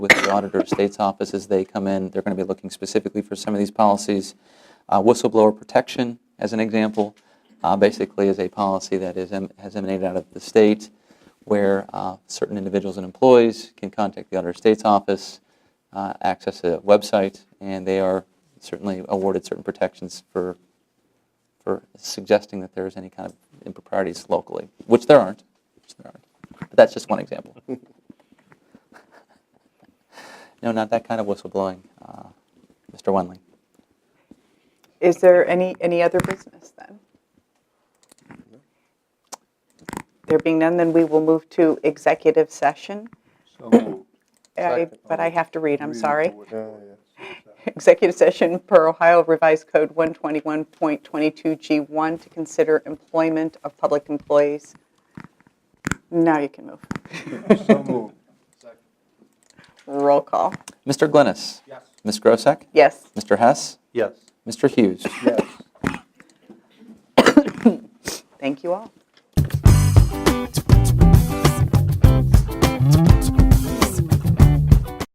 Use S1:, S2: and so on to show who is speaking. S1: with the Auditor of State's office as they come in. They're going to be looking specifically for some of these policies. Uh, Whistleblower protection, as an example, uh, basically is a policy that is em- has emanated out of the state where uh, certain individuals and employees can contact the Auditor of State's office, uh, access a website, and they are certainly awarded certain protections for for suggesting that there is any kind of improprieties locally, which there aren't. Which there aren't. But that's just one example. no, not that kind of whistleblowing, uh, Mr. Wendling.
S2: Is there any, any other business then? There being none, then we will move to executive session.
S3: So moved.
S2: I-
S3: Second.
S2: But I have to read, I'm
S3: Read it
S2: sorry.
S3: forward, forward.
S2: Executive session per Ohio Revised Code 121.22G1 to consider employment of public employees. Now you can move.
S3: So moved.
S2: Roll call.
S1: Mr. Glennis.
S3: Yes.
S1: Ms. Grosek.
S2: Yes.
S1: Mr. Hess.
S3: Yes.
S1: Mr. Hughes.
S3: Yes.
S2: Thank you all.